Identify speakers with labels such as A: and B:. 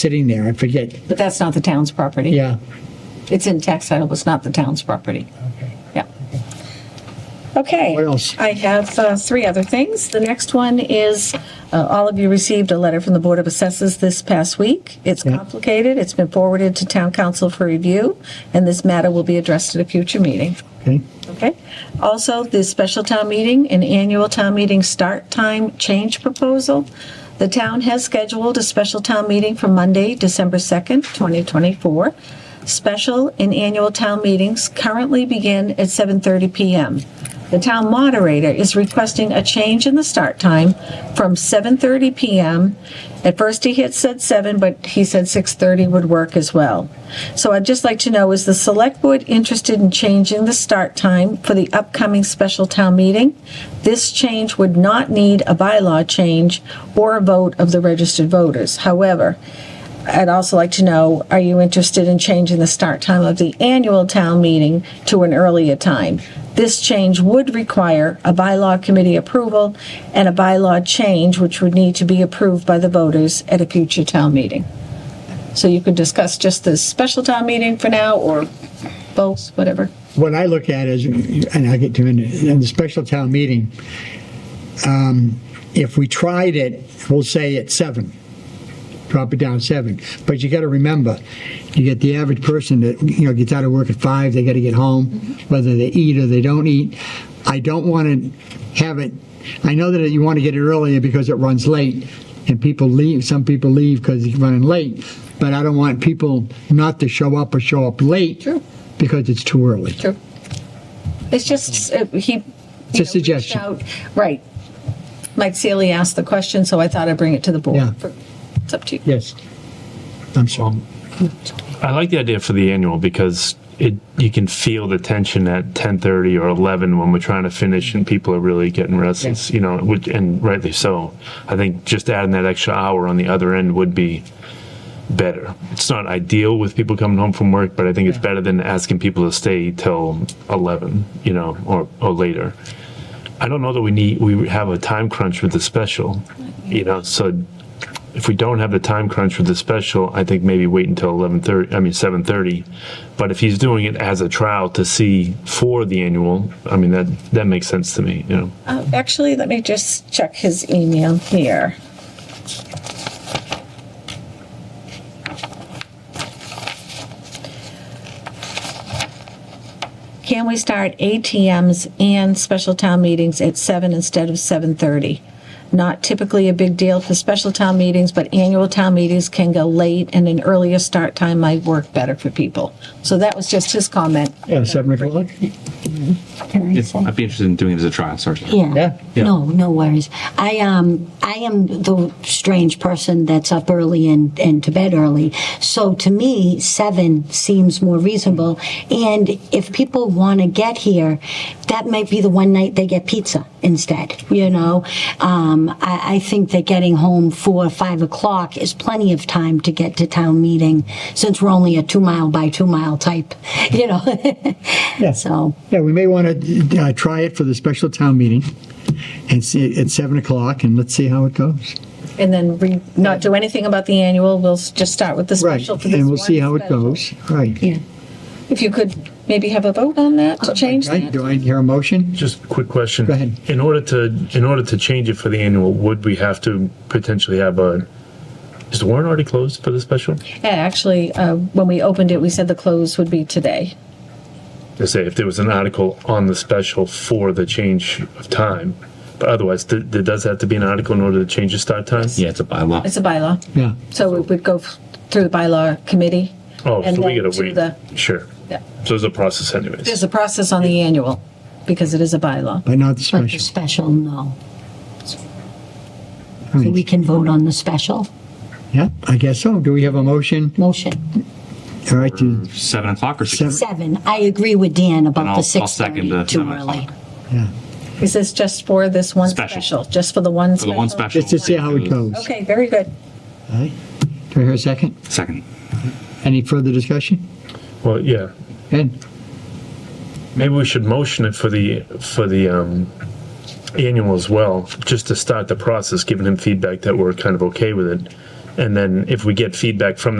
A: sitting there. I forget.
B: But that's not the town's property.
A: Yeah.
B: It's in tax title, but it's not the town's property. Yeah. Okay.
A: What else?
B: I have uh, three other things. The next one is, uh, all of you received a letter from the Board of Assessors this past week. It's complicated. It's been forwarded to Town Council for review, and this matter will be addressed at a future meeting.
A: Okay.
B: Okay. Also, the special town meeting and annual town meeting start time change proposal. The town has scheduled a special town meeting for Monday, December 2nd, 2024. Special and annual town meetings currently begin at 7:30 PM. The town moderator is requesting a change in the start time from 7:30 PM. At first, he had said 7, but he said 6:30 would work as well. So I'd just like to know, is the select board interested in changing the start time for the upcoming special town meeting? This change would not need a bylaw change or a vote of the registered voters. However, I'd also like to know, are you interested in changing the start time of the annual town meeting to an earlier time? This change would require a bylaw committee approval and a bylaw change, which would need to be approved by the voters at a future town meeting. So you could discuss just the special town meeting for now, or both, whatever.
A: What I look at is, and I'll get to it in the special town meeting, um, if we tried it, we'll say at seven, drop it down to seven. But you got to remember, you get the average person that, you know, gets out of work at five, they got to get home, whether they eat or they don't eat. I don't want to have it, I know that you want to get it earlier because it runs late and people leave, some people leave because it's running late, but I don't want people not to show up or show up late
B: True.
A: because it's too early.
B: True. It's just, uh, he. you
A: It's a
B: know, reached
A: suggestion.
B: out- Right. Mike Sealy asked the question, so I thought I'd bring it to the
A: Yeah.
B: board. For- It's up to you.
A: Yes. I'm sorry.
C: I like the idea for the annual because it you can feel the tension at ten thirty or eleven when we're trying to finish and people are really getting restless, you know, which, and rightly so. I think just adding that extra hour on the other end would be better. It's not ideal with people coming home from work, but I think it's better than asking people to stay till eleven, you know, or or later. I don't know that we need we have a time crunch with the special, you know, so if we don't have the time crunch with the special, I think maybe wait until eleven thirty. I mean seven thirty. But if he's doing it as a trial to see for the annual, I mean that that makes sense to me. You know,
B: Uh, Actually, let me just check his email here. Can we start ATMs and special town meetings at seven instead of seven thirty? Not typically a big deal for special town meetings, but annual town meetings can go late and an earlier start time might work better for people. So that was just his comment.
A: Yeah, seven o'clock?
D: It's, I'd be interested in doing it as a trial, sorry.
A: Yeah.
E: Yeah.
C: Yeah.
E: No, no worries. I um I am the strange person that's up early and, and to bed early. So to me, seven seems more reasonable. And if people want to get here, that might be the one night they get pizza instead. You know, um, I, I think that getting home four or five o'clock is plenty of time to get to town meeting, since we're only a two mile by two mile type. You know,
A: Yeah.
E: so
A: Yeah, we may want to uh, try it for the special town meeting and see at seven o'clock and let's see how it goes.
B: And then re, not do anything about the annual, we'll s- just start with the
A: Right.
B: special for this
A: And we'll see
B: one
A: how it
B: special.
A: goes. Right.
E: yeah.
B: If you could maybe have a vote on that
A: Oh,
B: to change
A: Right,
B: that?
A: Do I hear a motion?
C: just a quick question.
A: Go ahead.
C: In order to in order to change it for the annual, would we have to potentially have a? Is the warrant already closed for the special?
B: Yeah, actually, uh, when we opened it, we said the close would be today.
C: to say if there was an article on the special for the change of time. But otherwise, th- there does have to be an article in order to change the start time?
D: Yeah, it's a bylaw.
B: It's a bylaw,
A: Yeah.
B: so it would go f- through the bylaw committee.
C: Oh,
B: and
C: so we
B: then
C: gotta
B: to
C: wait.
B: the-
C: Sure.
B: Yeah.
C: So there's a process anyways.
B: There's a process on the annual, because it is a bylaw.
A: But not the
E: But the
A: special.
E: special, no.
A: All
E: So
A: right.
E: we can vote on the special
A: Yeah, I guess so. Do we have a motion?
E: motion.
A: All right, to-
D: Seven o'clock or
A: Seven.
D: six?
E: Seven, I agree with Dan
D: And
E: about
D: I'll-
E: the
D: I'll
E: six
D: second the
E: thirty, too
D: seven
E: early.
D: o'clock.
A: yeah,
B: Is this just for this one
D: Special.
B: special? Just for the one
D: For
B: special?
D: the one special.
A: just to see how it goes. All
B: Okay, very good.
A: right. Do I hear a second?
D: Second.
A: Any further discussion?
C: Well, yeah.
A: Ed?
C: Maybe we should motion it for the, for the, um, annual as well, just to start the process, giving him feedback that we're kind of okay with it. And then if we get feedback from the